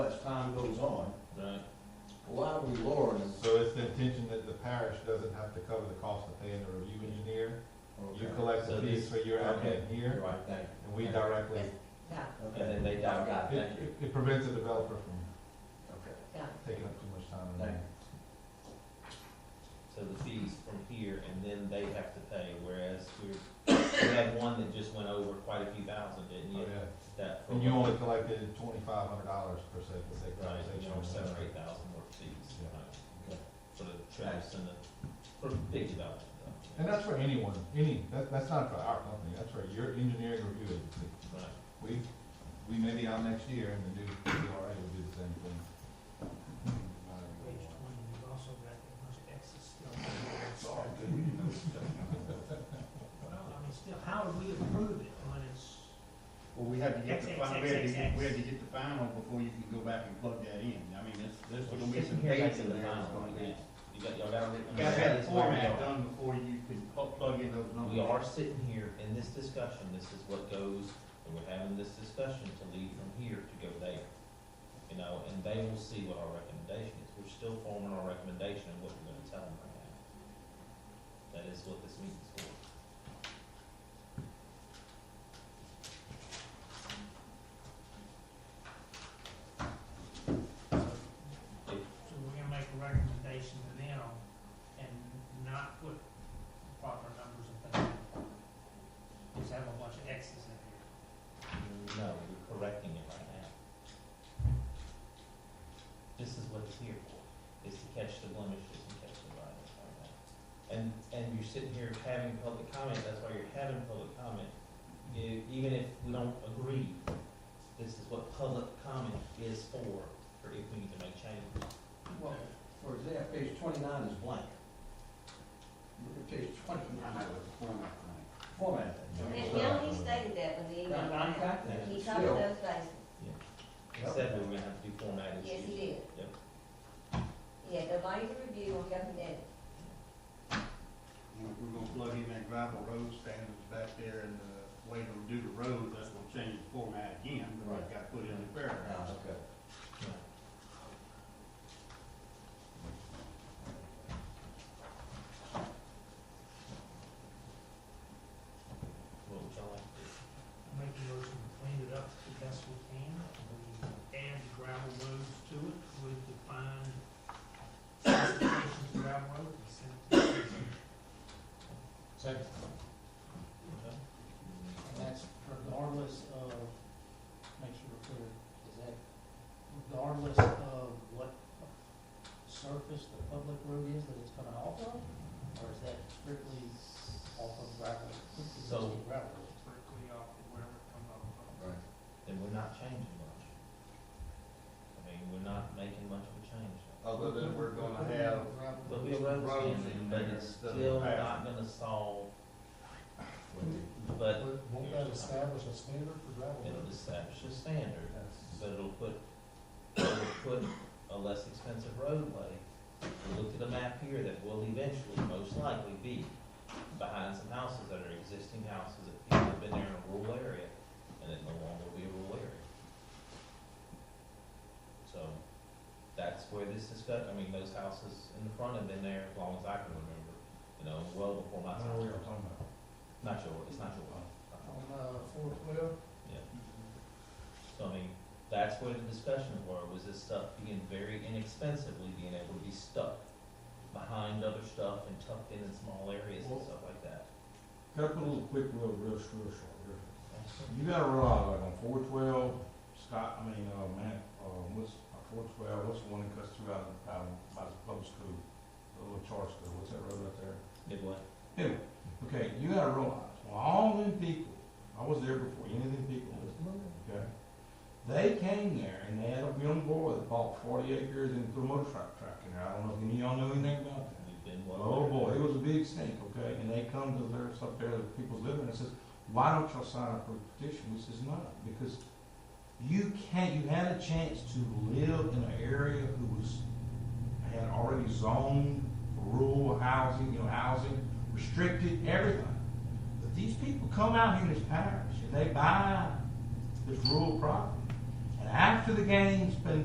time goes on, Right. why are we lowering it? So it's the intention that the parish doesn't have to cover the cost of paying the review engineer. You Okay. collect So the fees this- for your okay. admin here, Right, thank you. and we directly, Yes, got And Okay, then they dive out, it, thank you. it- it prevents a developer from okay. it, got it. taking up too much time. Thank So the fees from here, and then they have to pay, whereas we're, we had one that just went over quite a few thousand, didn't Oh, you? yeah. That. for- And you only collected twenty-five hundred dollars per se, for sake of Right, you conversation. know, seven or eight thousand more fees, Yeah. right, Okay. for the traps and the, for big development. though. And that's for anyone, any, that, that's not for our company, that's for your engineering review agency. Right. We, we may be out next year and the new DRA will do the same thing. Page twenty, we've also got the most excess still. Sorry, Well, dude. I mean, still, how would we approve it when it's, Well, we have to get the, X, fi- X, we have to X, get, X. we have to get the final before you can go back and plug that in. I mean, there's, there's gonna be Just some here, dates in that's the there that's final gonna one, be. yeah. You got, y'all gotta. You gotta have the format done before you can pl- plug in those numbers. We are sitting here in this discussion, this is what goes, and we're having this discussion to lead from here to go there. You know, and they will see what our recommendation is, we're still forming our recommendation and what we're gonna tell them right now. That is what this meeting's for. so we're gonna make a recommendation to them and not put proper numbers and things. in there. Just have a bunch of X's in here. No, we're correcting it right now. This is what it's here for, is to catch the blemishes and catch the bias right now. And, and you're sitting here having public comment, that's why you're having public comment. E- Even if we don't agree, this is what public comment is for, for if we need to make change. Well, for example, page twenty-nine is blank. Look at page twenty-nine, Format, format And that. Bill, he stated that when he emailed Now, I out. got that, He but covered still, those bases. He said we were gonna have to do formatted. Yes, he issues. did. Yep. Yeah, the light review on Governor Devitt. We're, we're gonna plug in that gravel road standards back there and uh, the way to do the road, that's gonna change the format again, but Right. it's gotta put in the Ah, paragraphs. okay. What would y'all like to do? Make a motion to clean it up the best we can, we add the gravel roads to it, we define specifications of gravel road, and send it to the commission. Second, Okay. and that's regardless of, make sure we're clear, is that regardless of what surface the public road is that it's coming off of? Or is that strictly off of gravel, existing So- gravel? strictly off of wherever it comes off of. Right. then we're not changing much. I mean, we're not making much of a change. Other than we're gonna have, Gravel. But we are Roads understanding, in but there it's that are still bad. not gonna solve, but Won't that establish a standard for gravel it'll establish a standard. That's- But it'll put, it'll put a less expensive roadway. We looked at a map here that will eventually, most likely, be behind some houses that are existing houses that people have been there in a rural area, and it no longer will be a rural area. So, that's where this discuss, I mean, those houses in the front have been there as long as I can remember, you know, well before my I don't time. know what you're talking about. Not your, it's not your, uh, On, uh, four twelve? so I mean, that's where the discussions were, was this stuff being very inexpensively being able to be stuck behind other stuff and tucked in in small areas and stuff like that. Can I put a little quick, little, real, real short here? You gotta realize, like on four twelve, Scott, I mean, uh, Matt, uh, what's, four twelve, what's the one that cuts through out, of- out, of- by the public school? The little charter school, what's that road up there? Did what? Okay, you gotta realize, well, all them people, I was there before any of them people was, okay? They came there and they had a young boy that bought forty acres and put a motor truck track in there. I don't know if any of y'all know anything about that. We've been well. Oh boy, it was a big stink, okay, and they come to their, up there, the people's living, and says, why don't y'all sign up for a petition? We says, no, because you can't, you had a chance to live in an area who was, had already zoned rural housing, you know, housing, restricted, everything. But these people come out here in this parish, and they buy this rural property, and after the game's been